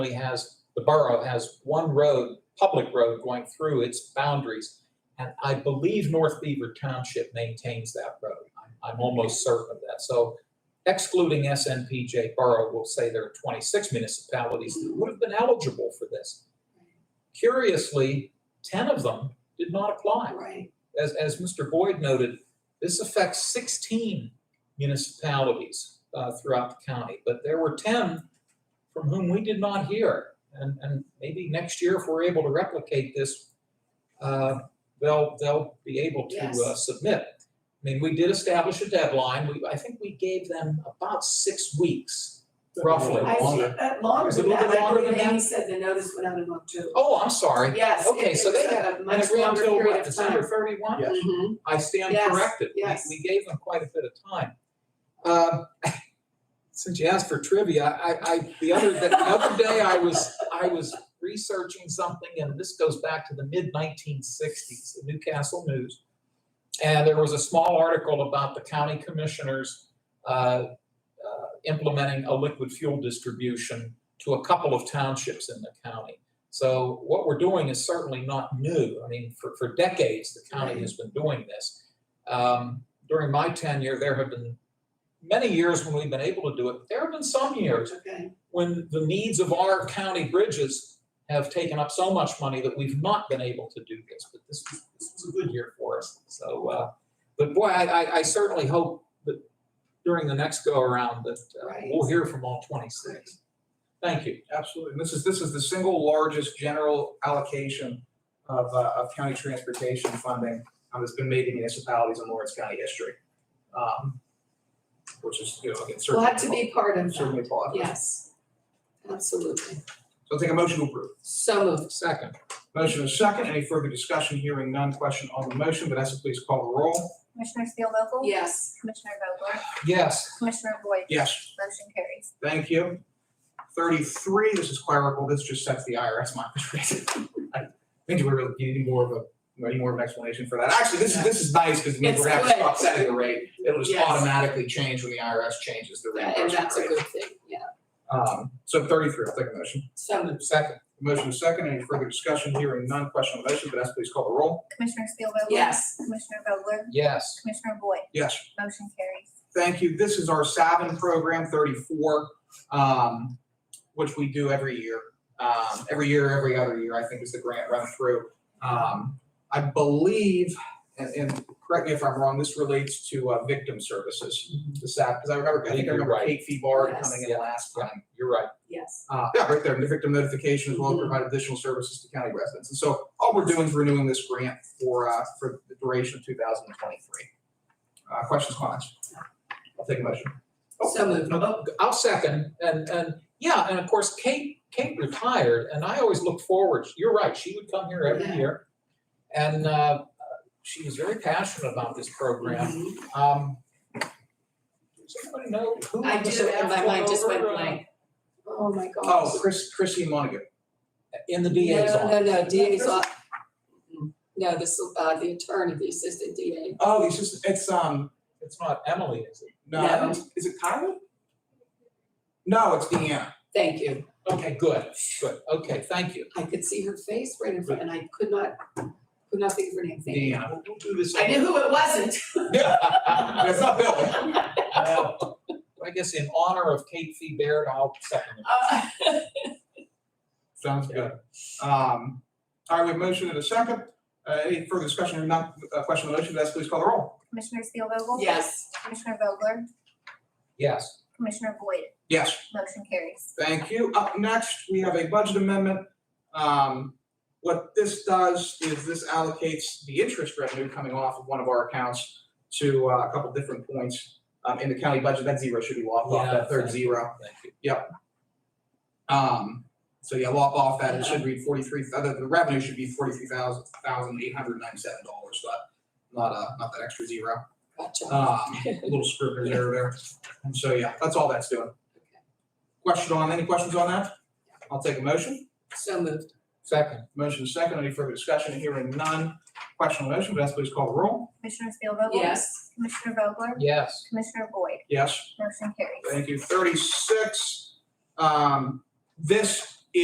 only has, the borough has one road, public road going through its boundaries. And I believe North Beaver Township maintains that road. I'm- I'm almost certain of that. So excluding SNPJ Borough, we'll say there are 26 municipalities that would have been eligible for this. Curiously, 10 of them did not apply. Right, As, as Mr. Boyd noted, this affects 16 municipalities uh, throughout the county, but there were 10 from whom we did not hear. And, and maybe next year, if we're able to replicate this, uh, they'll, they'll be able to uh, Yes. submit. I mean, we did establish a deadline. We, I think we gave them about six weeks, roughly. I see Longer. that longer Is it a than little that, bit I longer believe than Amy said the notice went out in October. Oh, I'm sorry. Yes. it- Okay, so it was they a And Much agree longer until period what, of time. December 31? Yeah. Mhm. I stand Yes, corrected. We- yes. We gave them quite a bit of time. Um, Since you asked for trivia, I, I, the other, the other day I was, I was researching something, and this goes back to the mid-1960s, the Newcastle News. And there was a small article about the county commissioners uh, uh, implementing a liquid fuel distribution to a couple of townships in the county. So what we're doing is certainly not new. I mean, for, for decades, the county has been doing this. Um, During my tenure, there have been many years when we've been able to do it. There have been some years Okay, when the needs of our county bridges have taken up so much money that we've not been able to do this, but this was, this was a good year for us. So, uh, but boy, I, I- I certainly hope that during the next go-around that uh, Right. we'll hear from all twenty-six. Thank you. Absolutely. And this is, this is the single largest general allocation of, uh, of county transportation funding um, that's been made to municipalities in Lawrence County history. Um, Which is, you know, again, glad to certainly, be part of that, certainly positive. yes, absolutely, So I'll take a motion to approve. so moved. Second, Motion is second. Any further discussion? Hearing none. Question on the motion. Vanessa, please call the roll. Commissioner Steelvogel? Yes, Commissioner Vogler? yes. Commissioner Boyd? Yes. Motion carries. Thank you. Thirty-three, this is clerical, this just sets the IRS minus rate. I think we really need more of a, any more of an explanation for that. Actually, this is, this is nice because it means It's we're having to good. stop setting the rate. It'll just Yes. automatically change when the IRS changes the and reimbursement that's a rate. good thing, yeah, Um, so thirty-three, I'll take a motion. so moved. Second. Motion is second, any further discussion, hearing none, question on the motion, Vanessa, please call the roll. Commissioner Steelvogel? Yes, Commissioner Vogler? Yes, Commissioner Boyd? Yes. Motion carries. Thank you. This is our Savin program thirty-four, um, which we do every year. Um, every year, every other year, I think is the grant run through. Um, I believe, and, and correct me if I'm wrong, this relates to, uh, victim services. The SAP, because I remember, I think I Mm-hmm. You're remember right. Kate Febard Yes. coming in last time you're right. yes, uh, yeah, right there, the victim notification as well, as provide additional services to county residents. And so all we're doing is renewing this grant for, uh, for the duration of two thousand and twenty-three. Uh, questions, comments? I'll take a motion. Oh, so moved. No, I'll second, and, and, yeah, and of course, Kate, Kate retired, and I always look forward, you're right, she would come here every Yeah. year. And, uh, she was very passionate about this program, Mhm. um. Does anybody know who? I was do, and my mind just went over, uh, blank. Oh, my gosh. Oh, Chris, Chrissy Monaghan. In the DA's office. No, no, no, DA's off. Mm-hmm. No, this, uh, the attorney, the assistant DA. Oh, it's just, it's, um, It's not Emily, is it? no, I don't- is it Kyla? No, it's Deanna. Thank you. Okay, good, good, okay, thank you. I could see her face right in front, and I could not, could not think of her name. Thank you. Deanna. We'll we'll do this. I knew who it wasn't. Yeah, it's not Bill. Well, I guess in honor of Kate Fee Baird, I'll second it. Uh, Sounds good. Um, all right, we have a motion and a second. Uh, any further discussion or not, uh, question on the motion, Vanessa, please call the roll. Commissioner Steelvogel? Yes, Commissioner Vogler? Yes. Commissioner Boyd? Yes. Motion carries. Thank you. Up next, we have a budget amendment. Um, what this does is this allocates the interest revenue coming off of one of our accounts to uh, a couple different points um, in the county budget. That zero should be locked off, Yeah, that third thank zero. Thank you. Um, so yeah, lock off that. It should read forty-three, uh, the, the revenue should be forty-three thousand, thousand eight hundred ninety-seven dollars, but not, uh, not that extra zero. gotcha. Um, a little scrivener's error there. And so, yeah, that's all that's doing. Question on, any questions on that? I'll take a motion. So moved. Second, Motion is second. Any further discussion? Hearing none. Question on the motion. Vanessa, please call the roll. Commissioner Steelvogel? Yes, Commissioner Vogler? yes. Commissioner Boyd? Yes. Motion carries. Thank you. Thirty-six. Um, this